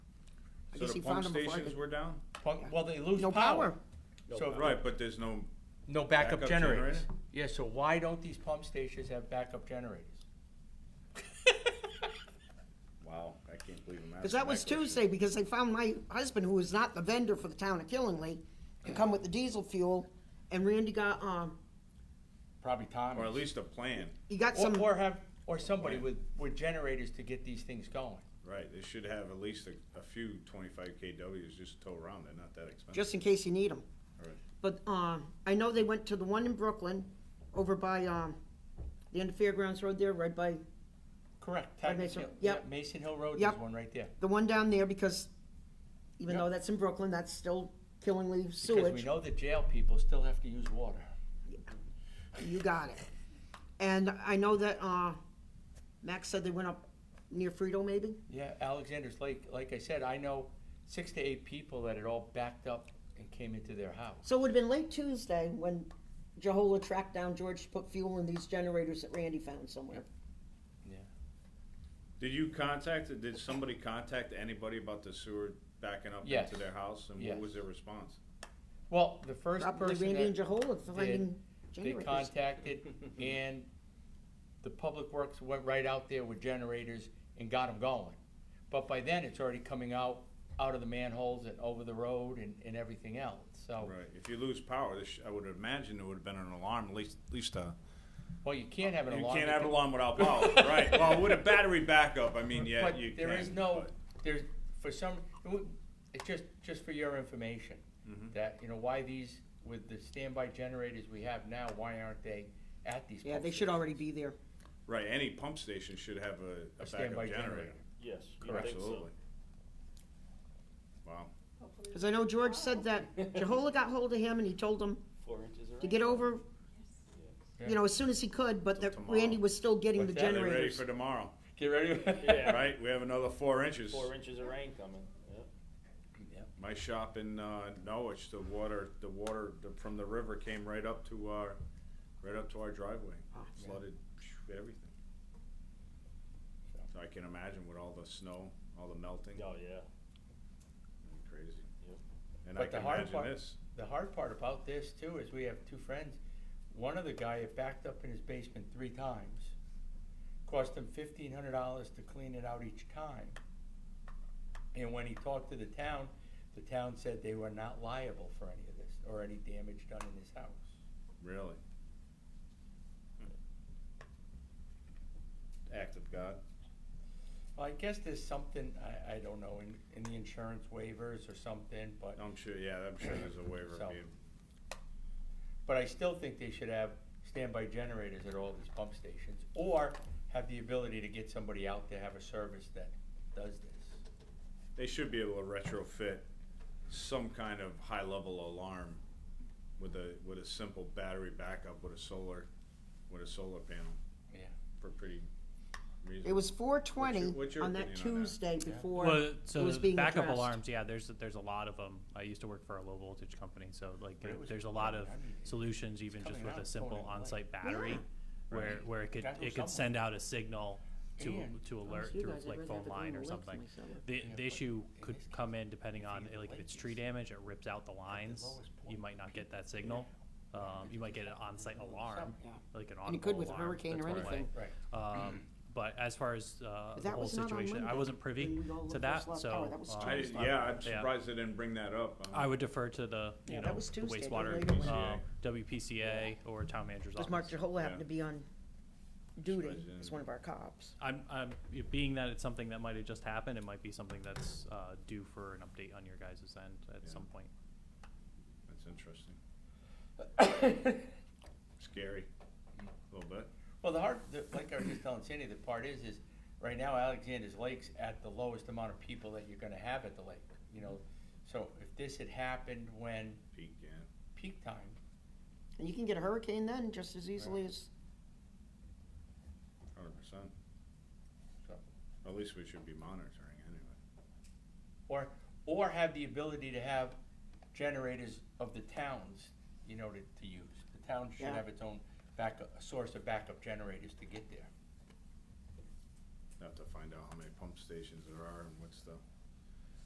So Yes, the he pump found them before I stations could- were down? Pump- Well, they lose No power. power. No So- power. Right, Right, but there's no, No backup Backup generators. generator? Yeah, so why don't these pump stations have backup generators? wow, I can't believe I'm asking Because that was question. Tuesday, because they found my husband, who is not the vendor for the town of Killingley, to come with the diesel fuel, and Randy got, um, Probably Tom. Or at least a plan, he got Or, some, or have, or somebody Right. with, with generators to get these things going. right, they should have at least a, a few twenty-five KWs just to tow around, they're not that expensive. just in case you need them. All right. But, um, I know they went to the one in Brooklyn, over by, um, the end of Fairgrounds Road there, right by, Correct. By Titan Mason- Hill- yep. yeah, Mason Hill Road, Yep. there's one right there. the one down there, because even though Yep. that's in Brooklyn, that's still Killingley Because we sewage. know the jail people still have to use water. You got it. And I know that, uh, Max said they went up near Frito, maybe? Yeah, Alexander's Lake, like I said, I know six to eight people that had all backed up and came into their house. So it would have been late Tuesday when Jehola tracked down George to put fuel in these generators that Randy found somewhere. Yeah. Did you contact, did somebody contact anybody about the sewer backing up Yes. into their house, and what Yes. was their response? Well, the first Probably person Randy and that Jehola finding they generators. contacted and the public works went right out there with generators and got them going. But by then, it's already coming out, out of the manholes and over the road and, and everything else, so. Right, if you lose power, this, I would imagine there would have been an alarm, at least, at least a. Well, you can't have an You alarm. can't have an alarm without power, right, well, with a battery backup, I mean, yeah, But you can. there is no, but- there's, for some, it would- it's just, just for your information, Mm-hmm. that, you know, why these, with the standby generators we have now, why aren't they at these? Yeah, pump they should already stations? be there. Right, any pump station should have a, a A backup standby generator. generator. Yes, you Correct. think so. Absolutely. Wow, Because I know George said that Jehola got hold of him and he told him Four inches of to rain. get over, Yeah. you know, as soon as he could, but that tomorrow. Randy was still getting the What's that? are they ready generators. for tomorrow, Get ready. Yeah. right, we have another four inches. Four inches of rain coming, yep. My shop in, uh, Norwich, the water, the water the- from the river came right up to our, right up to our driveway, Ah, flooded phew, everything. So I can imagine with all the snow, all the melting, Oh, yeah. crazy. Yep. And I But the can hard imagine part- this, The hard part about this too is we have two friends. One of the guy had backed up in his basement three times. Cost him fifteen hundred dollars to clean it out each time. And when he talked to the town, the town said they were not liable for any of this or any damage done in his house. really. Act of God. Well, I guess there's something, I, I don't know, in, in the insurance waivers or something, but, I'm sure, yeah, I'm sure there's a waiver So- being but I still think they should have standby generators at all these pump stations. Or have the ability to get somebody out to have a service that does this. they should be able to retrofit some kind of high level alarm with a with a simple battery backup with a solar with a solar panel Yeah. for pretty reasonable. It was four twenty what's your on that opinion on that? Tuesday before Well, it so was the being backup addressed. alarms, yeah, there's there's a lot of them. I used to work for a low voltage company, so like But it there- was there's a coming lot out. of I mean, it- solutions, even just coming with out, a it's simple going away. on-site battery, where Right. where it could Gotta go it somewhere. could send out a signal to And- to Promise alert Oh, you through guys, I'd like rather phone go on line or the left something. myself. The Yeah, but the issue in could this come case, in depending if on you eh, like if delay it's tree this damage, it rips out the lines. lowest You point might not get that signal. Um, you might get an on-site alarm, Yeah. like an on And it could with a hurricane or anything. Right. um, but as far as uh, But the that whole was not on situation, I Monday wasn't privy when we all to first that, lost power. so oh, That was um, I, Tuesday. yeah, I'm Yeah. surprised they didn't bring that up. Um, I would defer to the you Yeah, that know was the Tuesday, the wastewater later one. uh, WPCA or town manager's Because office. Mark Jehola Yeah. happened to be on duty Supervisor. as one of our cops. I'm, I'm being that it's something that might have just happened. It might be something that's uh, due for an update on your guys' end at Yeah. some point. That's interesting. Scary, a little bit. Well, the hard, the- like I was just telling Sandy, the part is, is right now Alexander's Lake's at the lowest amount of people that you're gonna have at the lake, you know? So if this had happened when Peak, yeah. peak time, And you can get a hurricane then just as easily as, Hundred percent. So- At least we should be monitoring anyway. or, or have the ability to have generators of the towns, you know, to, to use. The town should Yeah. have its own backup, a source of backup generators to get there. Have to find out how many pump stations there are and what's the